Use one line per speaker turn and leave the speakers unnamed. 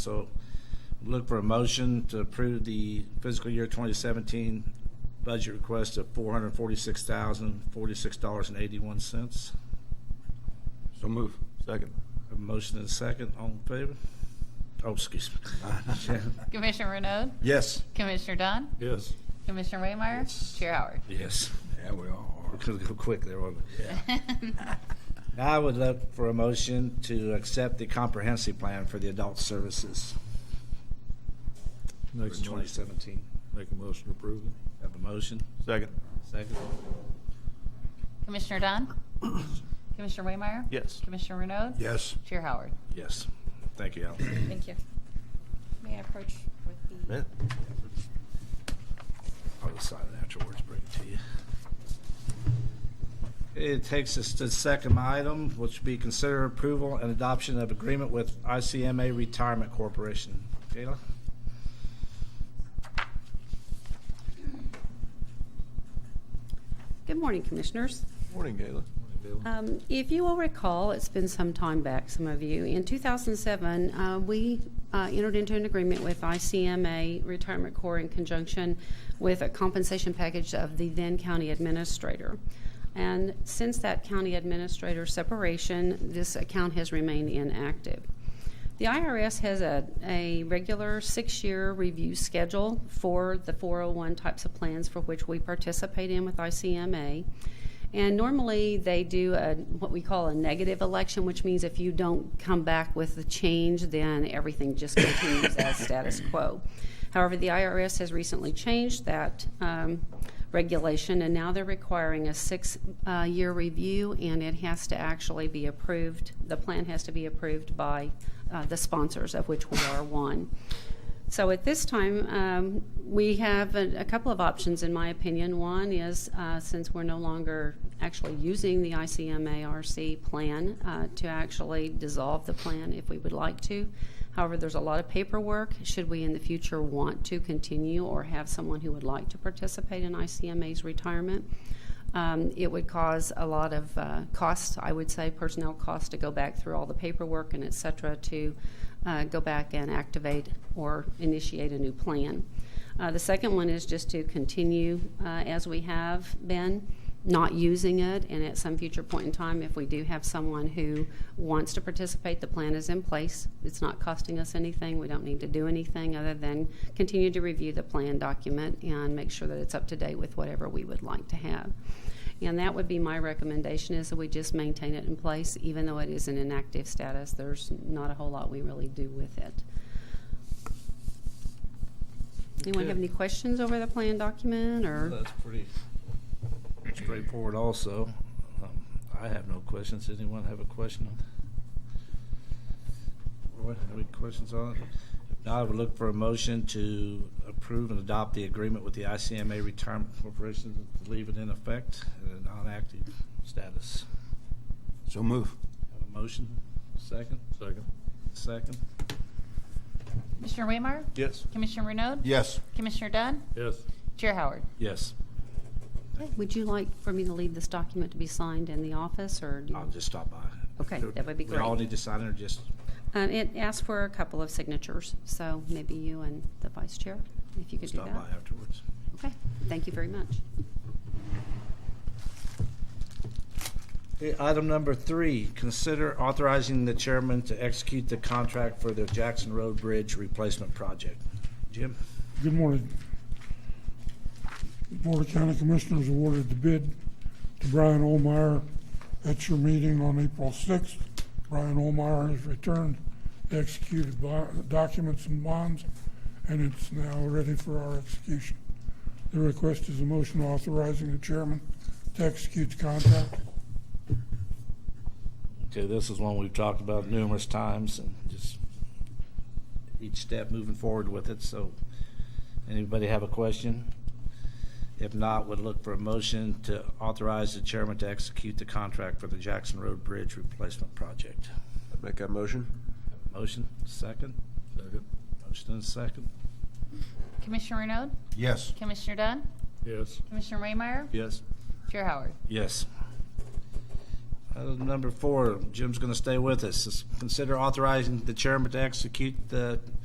So look for a motion to approve the fiscal year 2017 budget request of $446,046.81.
So move. Second.
A motion and a second, all in favor? Oh, excuse me. Shannon?
Commissioner Renaud,
Yes.
Commissioner Dunn,
Yes.
Commissioner Waymire, Chair Howard.
Yes.
Yeah, we all
We're going to go quick there, wasn't we? Now I would look for a motion to accept the comprehensive plan for the adult services for
Make
2017.
Make a motion to approve it.
Have a motion?
Second.
Second.
Commissioner Dunn, Commissioner Waymire,
Yes.
Commissioner Renaud,
Yes.
Chair Howard.
Yes. Thank you, Alan.
Thank you. May I approach with the?
I'll decide it afterwards, bring it to you. It takes us to the second item, which would be consider approval and adoption of agreement with ICMA Retirement Corporation. Kayla?
Good morning, Commissioners.
Morning, Gayla. Morning,
Um, If you will recall, it's been some time back, some of you, in 2007, uh, we uh, entered into an agreement with ICMA Retirement Corps in conjunction with a compensation package of the then county administrator. And since that county administrator separation, this account has remained inactive. The IRS has a, a regular six-year review schedule for the 401 types of plans for which we participate in with ICMA. And normally they do a, what we call a negative election, which means if you don't come back with the change, then everything just continues as status quo. However, the IRS has recently changed that um, regulation, and now they're requiring a six-year review, and it has to actually be approved. The plan has to be approved by uh, the sponsors, of which we are one. So at this time, um, we have a, a couple of options, in my opinion. One is uh, since we're no longer actually using the ICMARC plan uh, to actually dissolve the plan if we would like to. However, there's a lot of paperwork. Should we in the future want to continue or have someone who would like to participate in ICMA's retirement? Um, it would cause a lot of uh, costs, I would say, personnel costs to go back through all the paperwork and et cetera to uh, go back and activate or initiate a new plan. Uh, the second one is just to continue uh, as we have been, not using it, and at some future point in time, if we do have someone who wants to participate, the plan is in place. It's not costing us anything. We don't need to do anything other than continue to review the plan document and make sure that it's up to date with whatever we would like to have. And that would be my recommendation is that we just maintain it in place, even though it is an inactive status. There's not a whole lot we really do with it. Anyone have any questions over the plan document or?
That's pretty straightforward also. Um, I have no questions. Anyone have a question? Roy, have any questions on it? If not, I would look for a motion to approve and adopt the agreement with the ICMA Retirement Corporation to leave it in effect in a non-active status.
So move.
Have a motion? Second?
Second.
Second?
Commissioner Waymire,
Yes.
Commissioner Renaud,
Yes.
Commissioner Dunn,
Yes.
Chair Howard.
Yes.
Would you like for me to leave this document to be signed in the office or? do you-
I'll just stop by.
Okay, that would be
We all
great.
need to sign it or just,
Um, It asks for a couple of signatures, so maybe you and the vice chair, if you could do
stop by
that.
afterwards?
Okay, thank you very much.
Okay, Item number three, consider authorizing the chairman to execute the contract for the Jackson Road Bridge Replacement Project. Jim?
Good morning. The Board of County Commissioners awarded the bid to Brian Olmeyer at your meeting on April 6th. Brian Olmeyer has returned the executed bo- documents and bonds, and it's now ready for our execution. The request is a motion authorizing the chairman to execute the contract.
Okay, this is one we've talked about numerous times and just each step moving forward with it, so anybody have a question? If not, would look for a motion to authorize the chairman to execute the contract for the Jackson Road Bridge Replacement Project.
Make that motion.
Motion, second?
Second.
Motion and second?
Commissioner Renaud,
Yes.
Commissioner Dunn,
Yes.
Commissioner Waymire,
Yes.
Chair Howard.
Yes. Uh, Item number four, Jim's going to stay with us. is Consider authorizing the chairman to execute the